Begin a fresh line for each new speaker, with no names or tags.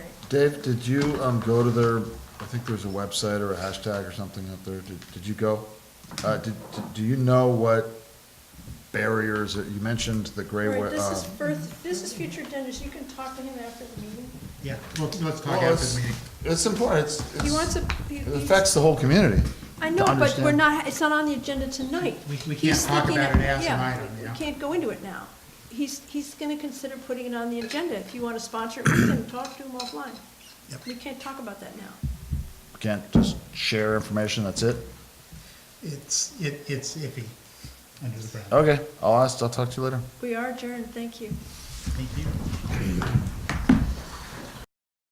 Dave, did you, um, go to their, I think there was a website or a hashtag or something up there, did, did you go? Uh, did, did- do you know what barriers, that- you mentioned the gray,
All
wa-
right, this is
uh,
first, this is future Dennis, you can talk to him after the meeting.
Yeah, well, let's talk
Well,
after
it's-
the meeting.
It's important, it's,
He wants to. he-
it
he's-
affects the whole community.
I know,
to
but we're
understand.
not, it's not on the agenda tonight.
We- we can't
He's
talk
looking
about
at-
it as an
yeah,
item, yeah.
We can't go into it now. He's, he's gonna consider putting it on the agenda. If you wanna sponsor it, we can talk to him offline.
Yep.
We can't talk about that now.
Can't just share information, that's it?
It's, it, it's iffy under the brown.
Okay, I'll ask, I'll talk to you later.
We are adjourned, thank you.
Thank you.